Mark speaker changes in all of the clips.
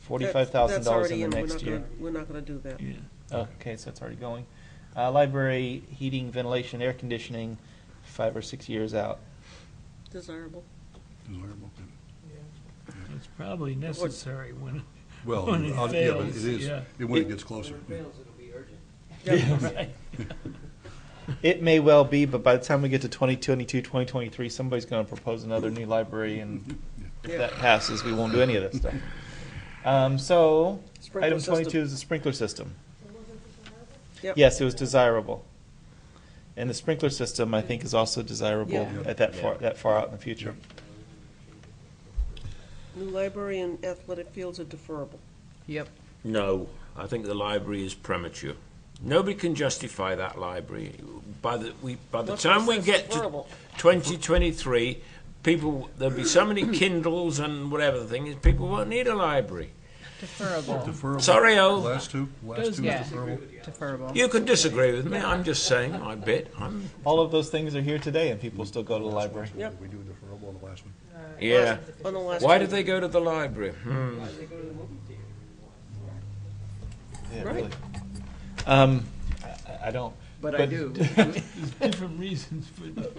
Speaker 1: forty-five thousand
Speaker 2: That's
Speaker 1: dollars
Speaker 2: already
Speaker 1: in the
Speaker 2: We're
Speaker 1: next
Speaker 2: not
Speaker 1: year.
Speaker 2: gonna- We're not gonna do that.
Speaker 3: Yeah.
Speaker 1: Okay, so that's already going. Uh, library, heating, ventilation, air conditioning, five or six years out.
Speaker 2: Desirable.
Speaker 4: Desirable.
Speaker 3: It's probably necessary when,
Speaker 4: Well,
Speaker 3: When it
Speaker 4: uh, yeah, but it
Speaker 3: fails,
Speaker 4: is,
Speaker 3: yeah.
Speaker 4: it- when it gets closer.
Speaker 5: When it fails, it'll be urgent.
Speaker 3: right.
Speaker 1: It may well be, but by the time we get to 2022, 2023, somebody's going to propose another new library, and if
Speaker 2: Yeah.
Speaker 1: that passes, we won't do any of that stuff. Um, so,
Speaker 2: Sprinkler
Speaker 1: item
Speaker 2: system.
Speaker 1: 22 is the sprinkler system.
Speaker 2: Yep.
Speaker 1: Yes, it was desirable. And the sprinkler system, I think, is also desirable
Speaker 2: Yeah.
Speaker 1: at that far, that far out in the future.
Speaker 2: New library and athletic fields are deferrable.
Speaker 6: Yep.
Speaker 7: No, I think the library is premature. Nobody can justify that library. By the we by the
Speaker 2: That's
Speaker 7: time
Speaker 2: what I
Speaker 7: we
Speaker 2: said,
Speaker 7: get
Speaker 2: it's
Speaker 7: to
Speaker 2: horrible.
Speaker 7: 2023, people there'll be so many Kindles and whatever the thing is. People won't need a library.
Speaker 6: Deferrable.
Speaker 4: Deferrable.
Speaker 7: Sorry, Al.
Speaker 4: Last two, last
Speaker 3: Does-
Speaker 4: two
Speaker 6: yeah.
Speaker 4: is deferrable.
Speaker 6: Deferable.
Speaker 7: You can disagree with me. I'm just saying my bit. I'm
Speaker 1: All of those things are here today, and people still go to the library.
Speaker 2: Yep.
Speaker 4: We do deferrable on the last one.
Speaker 7: yeah.
Speaker 2: On the last
Speaker 7: Why
Speaker 2: one.
Speaker 7: do they go to the library? Hmm.
Speaker 5: They go to the movie theater.
Speaker 1: Yeah,
Speaker 2: Right.
Speaker 1: really. Um, I- I, I don't.
Speaker 6: But I do.
Speaker 3: There's different reasons for that.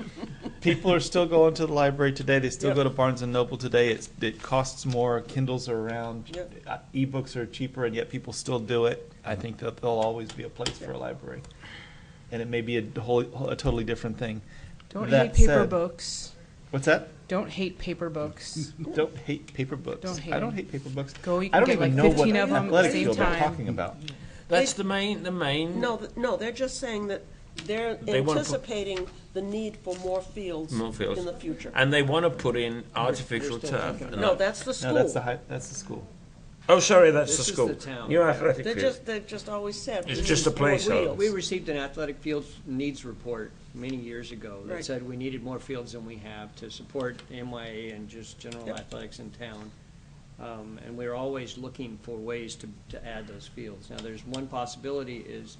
Speaker 1: People are still going to the library today. They still
Speaker 2: Yep.
Speaker 1: go to Barnes and Noble today. It's, it costs more. Kindles are around.
Speaker 2: Yep.
Speaker 1: Uh, Ebooks are cheaper, and yet people still do it. I think that there'll always be a place for a library, and it may be a whole, a totally different thing.
Speaker 6: Don't
Speaker 1: That
Speaker 6: hate paper
Speaker 1: said-
Speaker 6: books.
Speaker 1: What's that?
Speaker 6: Don't hate paper books.
Speaker 1: Don't hate paper books.
Speaker 6: Don't hate
Speaker 1: I don't
Speaker 6: 'em.
Speaker 1: hate paper books.
Speaker 6: Go, you
Speaker 1: I
Speaker 6: can
Speaker 1: don't
Speaker 6: get
Speaker 1: even
Speaker 6: like
Speaker 1: know what
Speaker 6: fifteen of them at the
Speaker 1: athletic
Speaker 6: same
Speaker 1: field they're
Speaker 6: time.
Speaker 1: talking about.
Speaker 7: That's the main the main.
Speaker 2: No, th- no, they're just saying that they're
Speaker 7: They wanna put-
Speaker 2: anticipating the need for more fields
Speaker 7: More fields.
Speaker 2: in the future.
Speaker 7: And they want to put in artificial turf. And
Speaker 2: No,
Speaker 7: that-
Speaker 2: that's the
Speaker 1: No, that's the
Speaker 2: school.
Speaker 1: high, that's the school.
Speaker 7: oh, sorry, that's
Speaker 5: This
Speaker 7: the
Speaker 5: is
Speaker 7: school.
Speaker 5: the town.
Speaker 7: New athletic
Speaker 2: They're
Speaker 7: field.
Speaker 2: just, they've just always said. we
Speaker 7: It's
Speaker 2: need
Speaker 7: just a
Speaker 2: more
Speaker 7: placeholder.
Speaker 2: wheels.
Speaker 5: We received an athletic fields needs report many years ago
Speaker 2: Right.
Speaker 5: that said we needed more fields than we have to support NYA and just general
Speaker 2: Yep.
Speaker 5: athletics in town. Um, And we're always looking for ways to, to add those fields. Now, there's one possibility is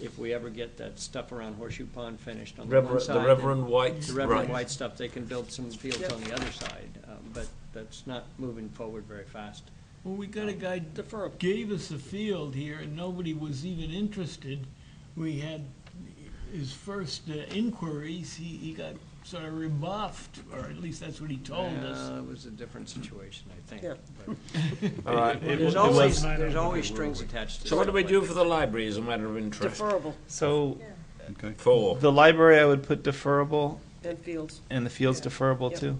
Speaker 5: if we ever get that stuff around Horseshoe Pond finished on the one
Speaker 7: Reverend,
Speaker 5: side.
Speaker 7: the
Speaker 5: and
Speaker 7: Reverend White.
Speaker 5: The Reverend
Speaker 7: right.
Speaker 5: White stuff, they can build some fields
Speaker 2: Yep.
Speaker 5: on the other side, um, but that's not moving forward very fast.
Speaker 3: Well, we got a guy
Speaker 2: Deferrable.
Speaker 3: gave us a field here and nobody was even interested. We had his first uh, inquiries, he, he got sort of rebuffed, or at least that's what he told us.
Speaker 5: Uh, It was a different situation, I think.
Speaker 2: Oh, Yeah.
Speaker 5: but-
Speaker 7: All right.
Speaker 5: There's always, there's always strings attached to
Speaker 7: So what do we
Speaker 5: stuff like
Speaker 7: do for the library as a matter of interest?
Speaker 2: Deferrable
Speaker 1: So
Speaker 4: Okay.
Speaker 7: Four.
Speaker 1: the library, I would put deferrable,
Speaker 2: and fields.
Speaker 1: and the field's deferrable
Speaker 2: Yep.
Speaker 1: too.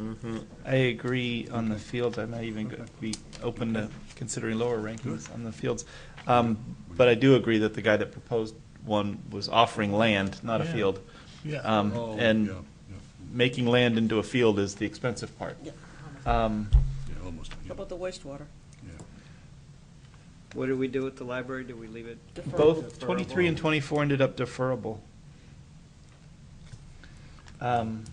Speaker 7: Mhm.
Speaker 1: I agree on the fields. I might even go- be open to considering lower rankings on the fields. Um, But I do agree that the guy that proposed one was offering land, not a
Speaker 3: Yeah.
Speaker 1: field.
Speaker 3: Yeah,
Speaker 1: Um,
Speaker 4: Oh,
Speaker 1: And
Speaker 4: yeah, yeah,
Speaker 1: making land into a field is the expensive part.
Speaker 2: Yeah.
Speaker 1: Um,
Speaker 4: yeah, almost, yeah,
Speaker 2: How about the wastewater?
Speaker 4: yeah.
Speaker 5: that. What do we do with the library? Do we leave it?
Speaker 2: Deferrable.
Speaker 1: Both 23 and 24 ended up deferrable. Um,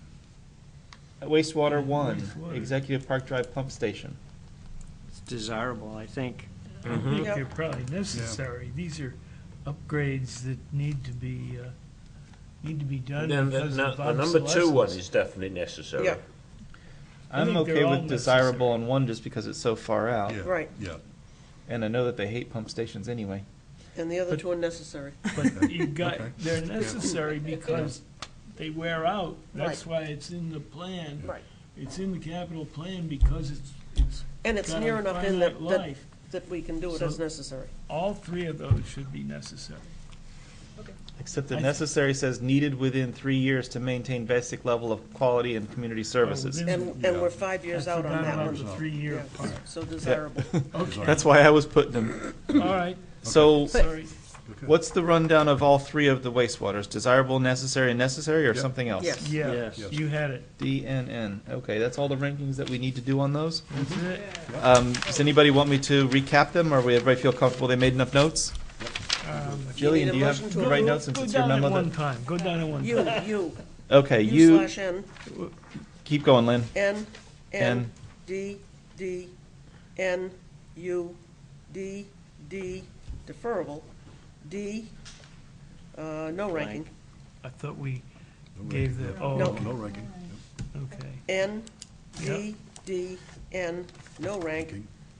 Speaker 1: Wastewater one,
Speaker 3: Wastewater.
Speaker 1: Executive Park Drive Pump Station.
Speaker 5: It's desirable, I think.
Speaker 3: I
Speaker 7: Mm-hmm.
Speaker 3: think
Speaker 2: Yep.
Speaker 3: they're probably necessary. These are upgrades that need to be, uh, need to be done
Speaker 7: And then the,
Speaker 3: because
Speaker 7: no,
Speaker 3: of
Speaker 7: the number two one
Speaker 3: obsolescence.
Speaker 7: is definitely necessary.
Speaker 2: Yeah,
Speaker 3: I
Speaker 1: I'm
Speaker 3: think they're
Speaker 1: okay
Speaker 3: all
Speaker 1: with desirable
Speaker 3: necessary.
Speaker 1: on one just because it's so far out.
Speaker 4: Yeah,
Speaker 2: Right.
Speaker 4: Yeah,
Speaker 1: And I know that they hate pump stations anyway.
Speaker 2: and the other two are necessary.
Speaker 3: But you got,
Speaker 4: Okay.
Speaker 3: they're necessary because they wear out. That's why it's in the plan.
Speaker 2: Right.
Speaker 3: It's in the capital plan because it's, it's
Speaker 2: And it's
Speaker 3: got
Speaker 2: near
Speaker 3: a
Speaker 2: enough in that,
Speaker 3: finite
Speaker 2: that,
Speaker 3: life.
Speaker 2: that we can do it
Speaker 3: So-
Speaker 2: as necessary.
Speaker 3: All three of those should be necessary.
Speaker 1: Except
Speaker 3: I
Speaker 1: that
Speaker 3: th-
Speaker 1: necessary says needed within three years to maintain basic level of quality and
Speaker 3: Oh,
Speaker 1: community services.
Speaker 3: within-
Speaker 2: And, and we're five years out on that one.
Speaker 3: the three-year part.
Speaker 2: Yeah, So desirable.
Speaker 3: Okay,
Speaker 1: That's why I was putting them.
Speaker 3: all right,
Speaker 1: So
Speaker 3: sorry.
Speaker 4: okay.
Speaker 1: what's the rundown of all three of the wastewaters? Desirable, necessary, and necessary, or
Speaker 4: Yep.
Speaker 1: something else?
Speaker 2: Yes.
Speaker 3: Yeah,
Speaker 5: Yes.
Speaker 3: you had it.
Speaker 1: DNN. Okay, that's all the rankings that we need to do on those.
Speaker 3: That's it.
Speaker 1: Um, does anybody want me to recap them, or we everybody feel comfortable they made enough notes?
Speaker 3: Um,
Speaker 1: Jillian,
Speaker 2: a
Speaker 1: do you have
Speaker 2: motion
Speaker 1: the
Speaker 2: to
Speaker 1: right
Speaker 2: approve?
Speaker 1: notes since
Speaker 3: Go
Speaker 1: it's your
Speaker 3: down at
Speaker 1: memo?
Speaker 3: one
Speaker 1: that-
Speaker 3: time, go down at one
Speaker 2: You,
Speaker 3: time.
Speaker 2: you,
Speaker 1: Okay,
Speaker 2: U
Speaker 1: you
Speaker 2: slash N,
Speaker 1: keep going, Lynn.
Speaker 2: N, N,
Speaker 1: N.
Speaker 2: D, D, N, U, D, D, deferrable, D, uh, no ranking,
Speaker 3: I thought we
Speaker 4: No
Speaker 3: gave
Speaker 4: ranking,
Speaker 3: the,
Speaker 4: no.
Speaker 3: oh,
Speaker 2: No.
Speaker 4: No, no ranking, yeah.
Speaker 3: okay.
Speaker 2: N,
Speaker 3: Yep.
Speaker 2: D, D, N, no rank,
Speaker 4: Ranking.